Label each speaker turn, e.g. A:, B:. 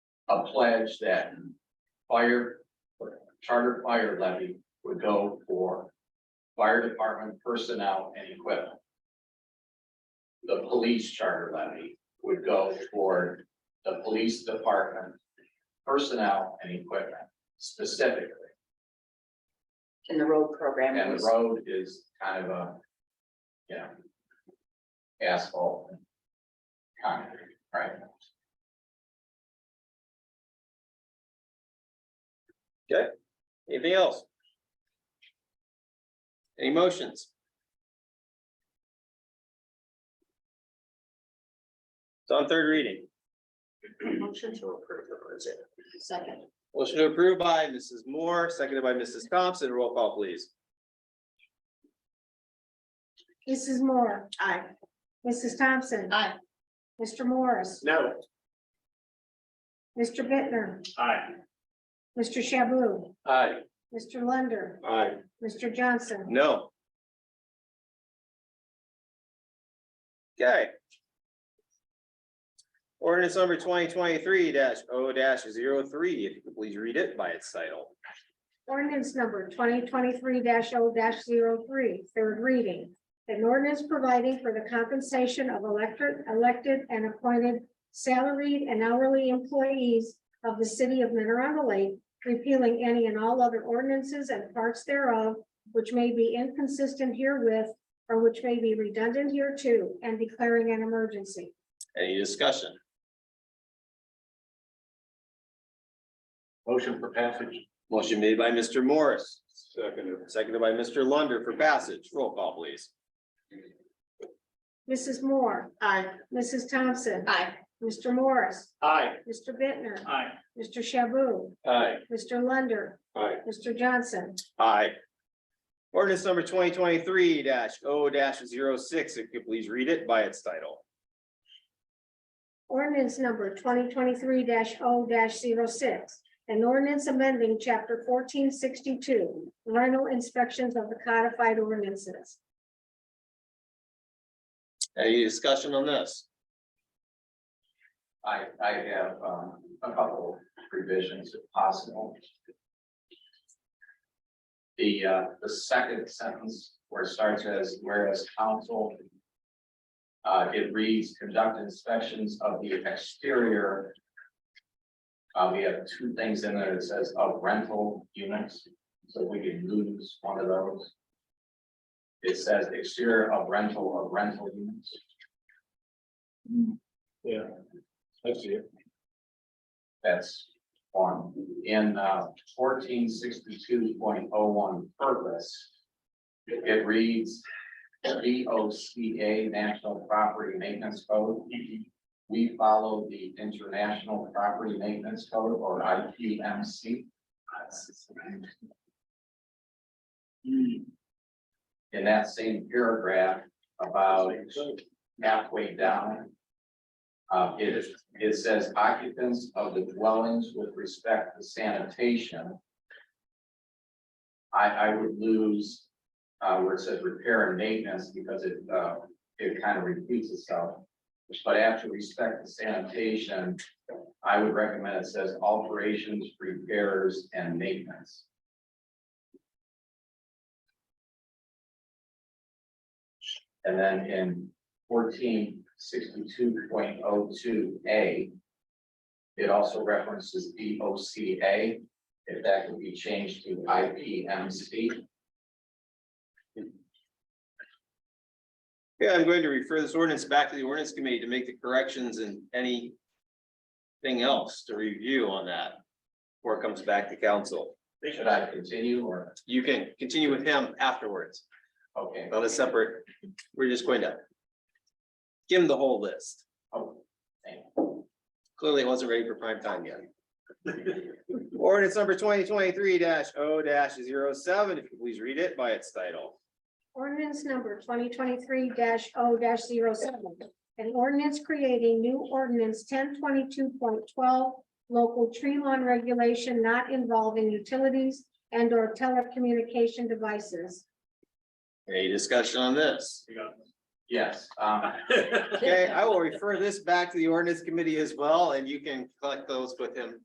A: a pledge that fire, charter fire levy would go for fire department personnel and equipment. The police charter levy would go toward the police department personnel and equipment specifically.
B: in the road program.
A: And
B: was-
A: the road is kind of a, you know, asphalt and concrete, right?
C: Anything else? Any motions? It's on third reading.
B: Motion to approve the budget. Second.
C: Motion to approve by Mrs. Moore, seconded by Mrs. Thompson. Roll call, please.
D: Mrs. Moore,
B: Aye.
D: Mrs. Thompson.
B: Aye.
D: Mr. Morris,
A: No.
D: Mr. Bittner,
A: Aye.
D: Mr. Shaboo,
A: Aye.
D: Mr. Lunder,
C: Aye.
D: Mr. Johnson.
C: No. Okay. Ordinance number twenty twenty-three 0 3 if you could please read it by its title.
D: Ordinance number twenty twenty-three 0 3 Third reading. An ordinance providing for the compensation of elected, elected and appointed salaried and hourly employees of the city of Mineral Lake, repealing any and all other ordinances and parts thereof, which may be inconsistent herewith or which may be redundant hereto, and declaring an emergency.
C: Any discussion?
A: Motion for passage.
C: Motion made by Mr. Morris,
A: Second.
C: seconded by Mr. Lunder for passage. Roll call, please.
D: Mrs. Moore,
B: Aye.
D: Mrs. Thompson,
B: Aye.
D: Mr. Morris,
A: Aye.
D: Mr. Bittner,
A: Aye.
D: Mr. Shaboo,
C: Aye.
D: Mr. Lunder,
A: Aye.
D: Mr. Johnson.
C: Aye. Ordinance number twenty twenty-three 0 6 if you could please read it by its title.
D: Ordinance number twenty twenty-three 0 6 An ordinance amending chapter fourteen sixty-two, rental inspections of the codified ordinances.
C: Any discussion on this?
A: I, I have, um, a couple revisions if possible. The, uh, the second sentence where it starts as, whereas council. Uh, it reads, conduct inspections of the exterior. Uh, we have two things in there. It says of rental units, so we can lose one of those. It says exterior of rental of rental units. That's one, in uh, fourteen sixty-two point oh one purpose. It reads, V O C A National Property Maintenance Code. We follow the International Property Maintenance Code or I P M C. In that same paragraph about halfway down. Uh, it is it says occupants of the dwellings with respect to sanitation. I, I would lose, uh, where it says repair and maintenance because it, uh, it kind of repeats itself. But after respect to sanitation, I would recommend it says alterations, repairs and maintenance. And then in fourteen sixty-two point oh two A. It also references D O C A, if that could be changed to I P M C.
C: Yeah, I'm going to refer this ordinance back to the ordinance committee to make the corrections and any. Thing else to review on that. Before it comes back to council.
A: Should I continue or,
C: You can continue with him afterwards
A: okay,
C: on a separate, we're just going to. Give him the whole list.
A: oh,
C: Clearly it wasn't ready for prime time yet. Ordinance number twenty twenty-three 0 7 if you please read it by its title.
D: Ordinance number twenty twenty-three 0 7 An ordinance creating new ordinance ten twenty-two point twelve, local tree lawn regulation not involving utilities and or telecommunication devices.
C: Any discussion on this?
A: yes, um,
C: Okay, I will refer this back to the ordinance committee as well, and you can collect those with him